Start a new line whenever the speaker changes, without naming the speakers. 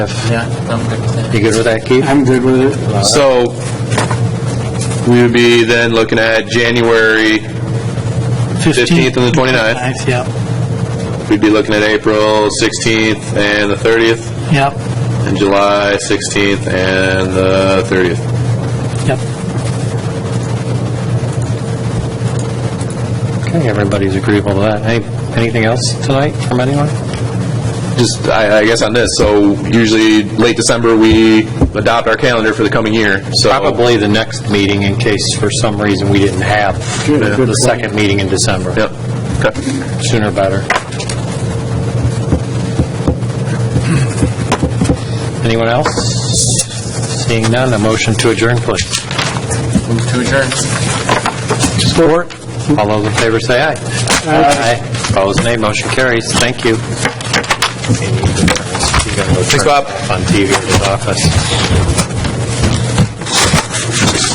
Yeah, I'm good with that. You good with that, Keith?
I'm good with it.
So we would be then looking at January 15th and the 29th.
Ninth, Yep,
We'd be looking at April 16th and the 30th,
yep,
and July 16th and the 30th.
yep.
Okay, everybody's agreeable to that. Any- Anything else tonight from anyone?
Just, I I guess on this, so usually late December, we adopt our calendar for the coming year, so.
Probably the next meeting, in case for some reason we didn't have the second meeting in December.
Yep. Okay.
Sooner better. Anyone else? Seeing none, a motion to adjourn, please.
Move to adjourn.
Support. All those in favor say aye. Aye. Opposed, nay. Motion carries. Thank you. Thanks,
Bob.
On TV in his office.